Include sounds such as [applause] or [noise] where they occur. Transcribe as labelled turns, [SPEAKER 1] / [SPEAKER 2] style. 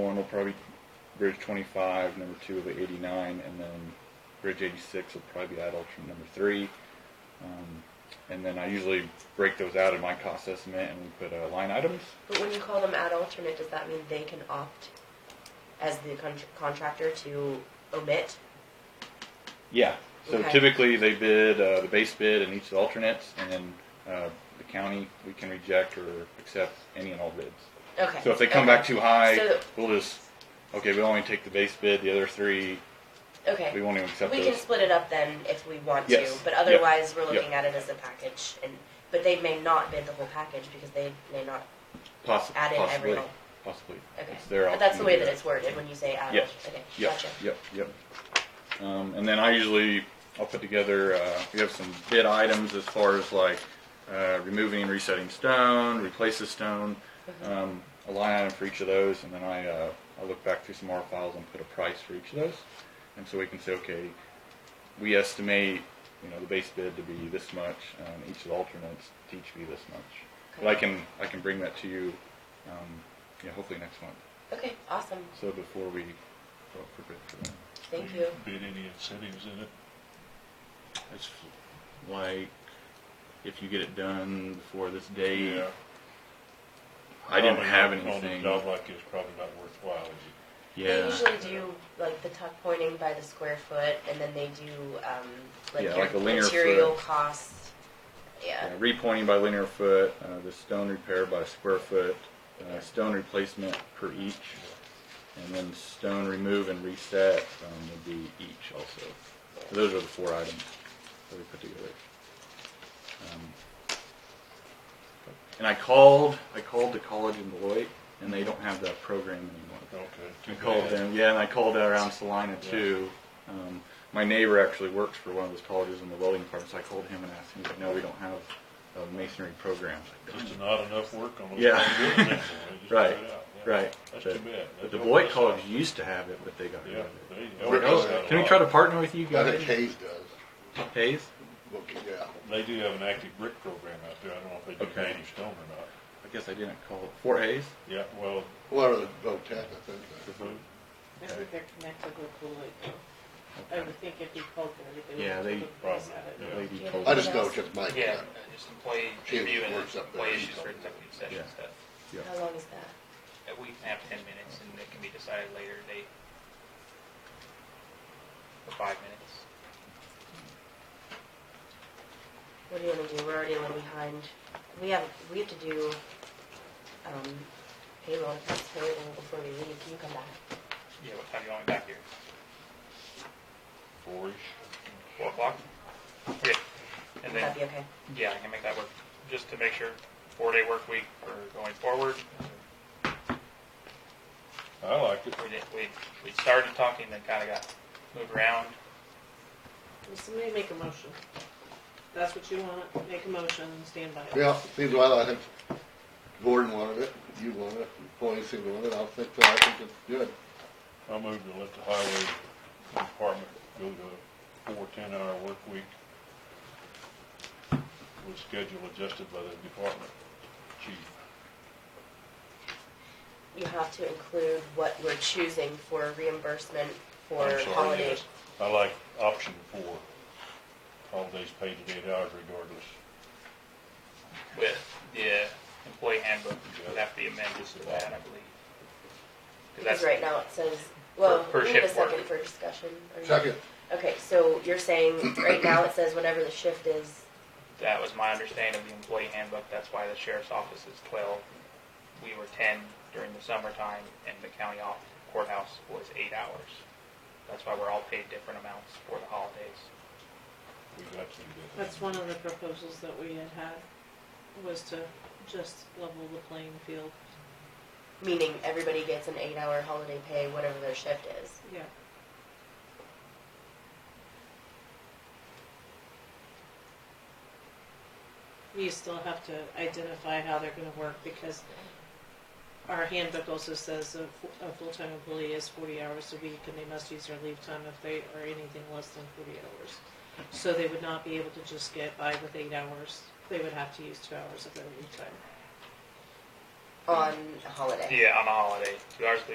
[SPEAKER 1] One will probably bridge 25, number two will be 89, and then bridge 86 will probably be adults from number three. Um, and then I usually break those out in my cost estimate and we put uh, line items.
[SPEAKER 2] But when you call them ad alternate, does that mean they can opt as the con- contractor to omit?
[SPEAKER 1] Yeah. So
[SPEAKER 2] Okay.
[SPEAKER 1] typically they bid uh, the base bid and each of the alternates, and then uh, the county we can reject or accept any and all bids.
[SPEAKER 2] Okay.
[SPEAKER 1] So if they come
[SPEAKER 2] okay.
[SPEAKER 1] back too high,
[SPEAKER 2] So-
[SPEAKER 1] we'll just okay. We only take the base bid. The other three
[SPEAKER 2] Okay.
[SPEAKER 1] we won't even accept
[SPEAKER 2] We
[SPEAKER 1] those.
[SPEAKER 2] can split it up then if we want
[SPEAKER 1] Yes.
[SPEAKER 2] to, but
[SPEAKER 1] Yep.
[SPEAKER 2] otherwise we're
[SPEAKER 1] Yep.
[SPEAKER 2] looking at it as a package. And but they may not bid the whole package because they may not.
[SPEAKER 1] Possi-
[SPEAKER 2] add in
[SPEAKER 1] possibly.
[SPEAKER 2] every-
[SPEAKER 1] possibly.
[SPEAKER 2] Okay.
[SPEAKER 1] It's their
[SPEAKER 2] but that's the
[SPEAKER 1] option
[SPEAKER 2] way
[SPEAKER 1] to do
[SPEAKER 2] that it's worded when you say ad
[SPEAKER 1] Yes.
[SPEAKER 2] alternate. Okay.
[SPEAKER 1] Yep,
[SPEAKER 2] Gotcha.
[SPEAKER 1] yep, yep. Um, and then I usually, I'll put together, uh, we have some bid items as far as like, uh, removing and resetting stone, replace the stone, um, a line item for each of those, and then I, uh, I look back through some more files and put a price for each of those. And so we can say, okay, we estimate, you know, the base bid to be this much, um, each of the alternates to each be this much. But I can, I can bring that to you, um, yeah, hopefully next month.
[SPEAKER 2] Okay. Awesome.
[SPEAKER 1] So before we go up for bid for that.
[SPEAKER 2] Thank
[SPEAKER 3] Do
[SPEAKER 2] you.
[SPEAKER 3] Bid any incentives in it? It's,
[SPEAKER 1] like if you get it done before this date.
[SPEAKER 3] yeah.
[SPEAKER 1] I didn't
[SPEAKER 3] Probably
[SPEAKER 1] have
[SPEAKER 3] not- on a
[SPEAKER 1] anything.
[SPEAKER 3] Job like this, probably not worthwhile, is it?
[SPEAKER 2] They
[SPEAKER 1] Yeah,
[SPEAKER 2] usually do like the tuck pointing by the square foot, and then they do um, like
[SPEAKER 1] Yeah,
[SPEAKER 2] your
[SPEAKER 1] like a linear
[SPEAKER 2] material
[SPEAKER 1] foot.
[SPEAKER 2] costs. Yeah.
[SPEAKER 1] Yeah, repointing by linear foot, uh, the stone repair by square foot, uh, stone replacement per each, and then stone remove and reset um, would be each also. So those are the four items that we put together. Um, and I called, I called the college in Beloit, and they don't have that program anymore.
[SPEAKER 3] Okay.
[SPEAKER 1] I called them, yeah, and I called around Salina too. Um, my neighbor actually works for one of those colleges in the welding department, so I called him and asked him, he's like, no, we don't have a masonry program. I was like,
[SPEAKER 3] Just not enough work on those.
[SPEAKER 1] Yeah.
[SPEAKER 3] things doing that, so they
[SPEAKER 1] [laughs]
[SPEAKER 3] just
[SPEAKER 1] Right,
[SPEAKER 3] put it out, yeah.
[SPEAKER 1] Right. But-
[SPEAKER 3] That's too bad.
[SPEAKER 1] But
[SPEAKER 3] That's
[SPEAKER 1] the
[SPEAKER 3] what
[SPEAKER 1] Beloit
[SPEAKER 3] I
[SPEAKER 1] College
[SPEAKER 3] saw.
[SPEAKER 1] used to have it, but they got rid
[SPEAKER 3] Yeah.
[SPEAKER 1] of it.
[SPEAKER 3] they-
[SPEAKER 1] Where
[SPEAKER 3] they
[SPEAKER 1] else-
[SPEAKER 3] got a
[SPEAKER 1] Can we
[SPEAKER 3] lot.
[SPEAKER 1] try to partner with you
[SPEAKER 4] I think
[SPEAKER 1] guys?
[SPEAKER 4] Hayes does.
[SPEAKER 1] Hayes?
[SPEAKER 4] Look, yeah.
[SPEAKER 3] They do have an active brick program out there. I don't know if they do
[SPEAKER 1] Okay.
[SPEAKER 3] native stone or not.
[SPEAKER 1] I guess I didn't call it. Fort Hayes?
[SPEAKER 3] Yeah, well,
[SPEAKER 4] Well, the Votech, I think. that-
[SPEAKER 5] I think they're connected with Coolidge. I would think if you called them, they would.
[SPEAKER 1] Yeah, they-
[SPEAKER 5] look nice at it.
[SPEAKER 1] That lady told
[SPEAKER 4] I
[SPEAKER 1] me.
[SPEAKER 4] just know just Mike.
[SPEAKER 6] Yeah,
[SPEAKER 4] uh,
[SPEAKER 6] just employee
[SPEAKER 4] She
[SPEAKER 6] review and
[SPEAKER 4] works up there.
[SPEAKER 6] employee issues for executive session
[SPEAKER 1] Yeah.
[SPEAKER 6] stuff.
[SPEAKER 1] Yeah.
[SPEAKER 2] How long is that?
[SPEAKER 6] That we can have ten minutes and it can be decided later date. For five minutes.
[SPEAKER 2] What do you want to do? We're already a little behind. We have, we have to do, um, payroll and tax payable before we leave. Can you come back?
[SPEAKER 6] Yeah, what time do you want me back here?
[SPEAKER 3] four-ish.
[SPEAKER 6] Four o'clock? Yeah, and
[SPEAKER 2] Would that
[SPEAKER 6] then,
[SPEAKER 2] be okay?
[SPEAKER 6] yeah, I can make that work, just to make sure four-day work week for going forward.
[SPEAKER 3] I like it.
[SPEAKER 6] We did, we, we started talking, then kinda got moved around.
[SPEAKER 5] Well, Somebody make a motion. That's what you want, make a motion and stand by it.
[SPEAKER 4] Yeah, seems well, I think Gordon wanted it, you wanted it, Paulie seemed to want it, I'll think that, I think it's good.
[SPEAKER 3] I moved to let the highway department go to four ten-hour work week with schedule adjusted by the department chief.
[SPEAKER 2] You have to include what we're choosing for reimbursement for
[SPEAKER 3] I'm sorry,
[SPEAKER 2] holiday.
[SPEAKER 3] yes. I like option four, holidays paid at eight hours regardless.
[SPEAKER 6] with the employee handbook, would have to be amended to that, I believe.
[SPEAKER 2] Because
[SPEAKER 6] that's-
[SPEAKER 2] right now it says, well,
[SPEAKER 6] per
[SPEAKER 2] we need a
[SPEAKER 6] shift work.
[SPEAKER 2] second for discussion. Are you-
[SPEAKER 4] Second,
[SPEAKER 2] Okay, so you're saying, right now it says whatever the shift is,
[SPEAKER 6] That was my understanding of the employee handbook, that's why the sheriff's office is twelve. We were ten during the summertime, and the county off- courthouse was eight hours. That's why we're all paid different amounts for the holidays.
[SPEAKER 3] We got to do that.
[SPEAKER 5] That's one of the proposals that we had had, was to just level the playing field.
[SPEAKER 2] meaning everybody gets an eight-hour holiday pay, whatever their shift is.
[SPEAKER 5] Yeah. You still have to identify how they're gonna work because our handbook also says a, fu- a full-time employee is forty hours a week and they must use their leave time if they are anything less than forty hours. So they would not be able to just get by with eight hours. They would have to use two hours of their leave time.
[SPEAKER 2] on a holiday.
[SPEAKER 6] Yeah, on a holiday, two hours